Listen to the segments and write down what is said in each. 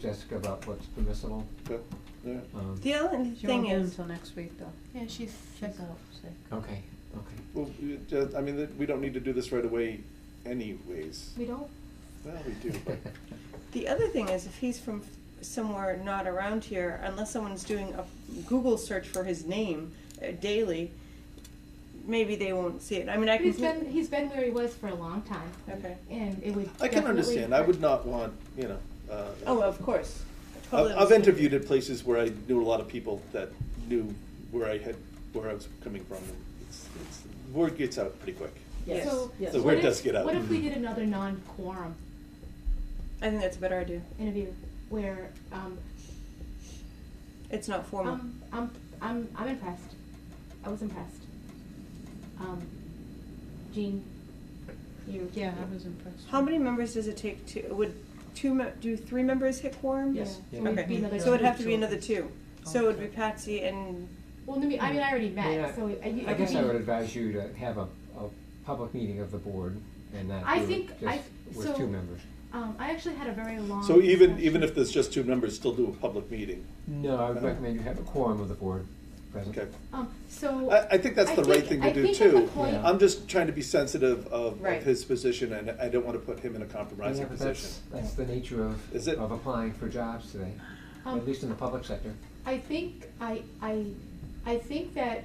Jessica about what's permissible. Okay, yeah. Um, The only She won't thing be in is, until next week, though. Yeah, she's sick. She's out sick. Okay, okay. Well, we- uh, I mean, th- we don't need to do this right away anyways. We don't. Well, we do, but the other thing is, if he's from f- somewhere not around here, unless someone's doing a Google search for his name uh, daily, maybe they won't see it. I mean, I But can. he's been he's been where he was for a long time, Okay. and it would. I can definitely understand. I would hurt. not want, you know. uh, Oh, of course. I've, Totally I've understand. interviewed at places where I knew a lot of people that knew where I had, where I was coming from. and It's, it's, word gets out pretty quick. Yes. So Yes. The what word if- does get out. Mm-hmm. What if we did another non-quorum I think that's a better idea. interview where um, It's not formal. um I'm I'm I'm impressed. I was impressed. Um, Jean, you. Yeah, I was impressed. How many members does it take to? Would two? Me- do three members hit quorum? Yes. Yeah. Yeah. So it'd be Okay. another So it'd two. have to be another two. So it would be Patsy and Well, I mean, I mean, I already met, Yeah. so uh, it- I it would guess I be- would advise you to have a, a public meeting of the board and not I do it think I- just with so- two members. Um, I actually had a very long. So even, discussion. even if there's just two members, still do a public meeting. No, I would Uh, recommend you have a quorum of the board present. Okay. Um, so. I, I think that's I the right think- thing to I do think too. at the point- Yeah. I'm just trying to be sensitive of, Right. of his position and I don't want to put him in a Yeah, compromising but position. that's, that's the nature Is of, it- of applying for jobs today, um, at least in the public sector. I think I I I think that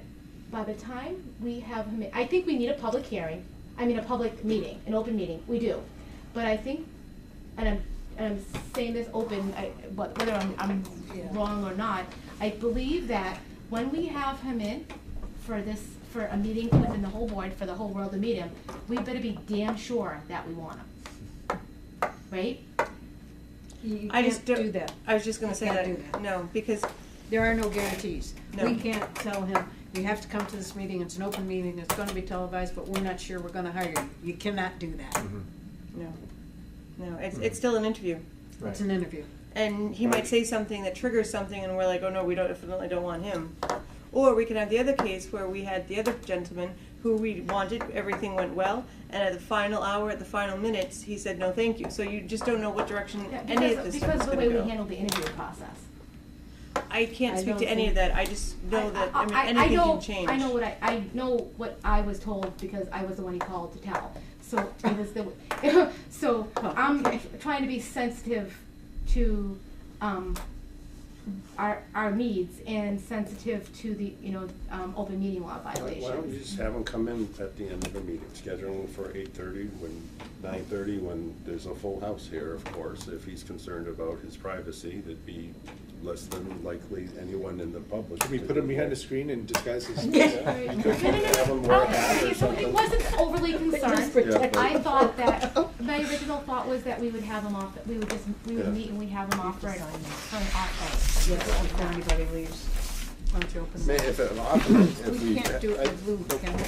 by the time we have him, I think we need a public hearing. I mean, a public meeting, an open meeting. We do, but I think, and I'm and I'm saying this open, I, but whether I'm, I'm Yeah. wrong or not, I believe that when we have him in for this for a meeting within the whole board for the whole world to meet him, we better be damn sure that we want him, right? You I just can't don't- do that. I was just going to say Can't that. do that. No, because There are no guarantees. No. We can't tell him, you have to come to this meeting, it's an open meeting, it's gonna be televised, but we're not sure we're gonna hire you. You cannot do that. Mm-hmm. Mhm, no, no, it's it's still an interview, Right. It's an interview. and he might Right. say something that triggers something, and we're like, oh no, we don't definitely don't want him. Or we can have the other case where we had the other gentleman who we wanted, everything went well, and at the final hour, at the final minutes, he said no, thank you. So you just don't know what direction Yeah, any of because this because stuff of is the going way to we go. handle the interview process. I can't I speak to don't any of think- that. I just know that I, mean I- I anything know- can change. I know what I, I know what I was told because I was the one he called to tell. So I was the, so Oh, I'm trying to be sensitive to, um, our, our needs and sensitive to the, you know, um, open meeting law Why violations. why don't you just have them come in at the end of the meeting, schedule them for eight-thirty, when, nine-thirty, when there's a full house here, of course. If he's concerned about his privacy, that'd be less than likely anyone in the public. Can we to put him do behind that. a screen and disguise his? Right. No, Because no, no, have him no. wear a I- hat okay, or so It something. wasn't overly concerned. Yeah, but- I thought that, my original thought was that we would have him off, we would just, we Yeah. would meet and we'd have him off for, an- Design. for an off Yes, before anybody leaves, once you open. I mean, it. If an off night, if We can't do it I- with blue, can we?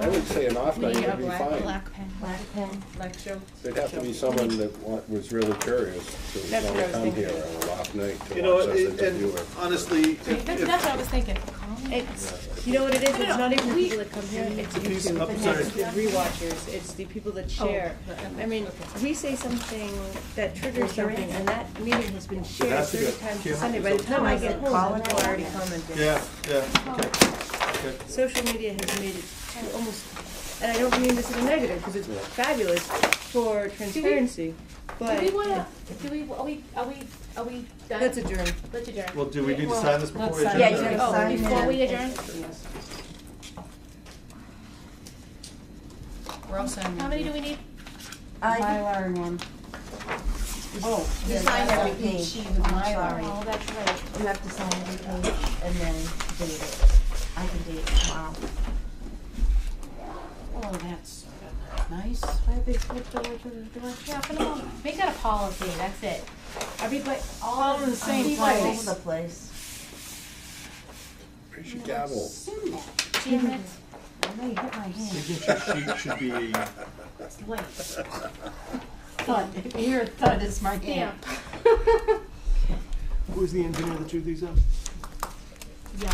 I would say an off night We would have be black, fine. black pen, Black pen. black show. There'd have to be someone that wa- was really curious to That's what wanna I was come thinking. here on an off night You to know, watch us it- interview and it. honestly, if- That's, if- that's what I was thinking. It's, you know what it is? It's not even the We- people that come here, it's YouTube, I'm and sorry. it's the rewatchers, it's the people that Oh, share. I mean, we say something that triggers something, and that meeting has been shared has to thirty go- times yeah. on Sunday. By the time I get home, Colin I've already commented. yeah, yeah, okay, okay. Social media has made it to almost, and I don't mean this in a negative, because it's fabulous for transparency, Do but we wanna, do we, are we, are we, are we done? that's adjourned. Let's adjourn. Well, do we need to Well, sign this before let's we sign adjourn? or- it. Yeah, you Oh, Sign before we in. adjourn, We're all signing. how many do we need? Mylar and one. Oh. You sign every page, I'm sorry. Oh, that's right. You have to sign every page and then date it. I can date it tomorrow. Oh, that's nice. Yeah, for the moment, make that a policy, that's it. Everybody, all in the same All everybody- place. over the place. We should gavel. Damn it. I know you hit my hand. Signature sheet should be, Wait. Thud, here, thud is my hand. Damn. who's the engineer that drew these up? Yo.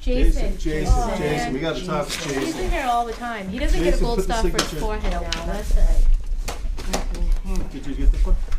Jason. Jason, Oh, Jason, we man. gotta talk to He's Jason. in here all the time. He doesn't get a Jason, gold put the star for his signature. forehead now, that's That's right. Did you get this one?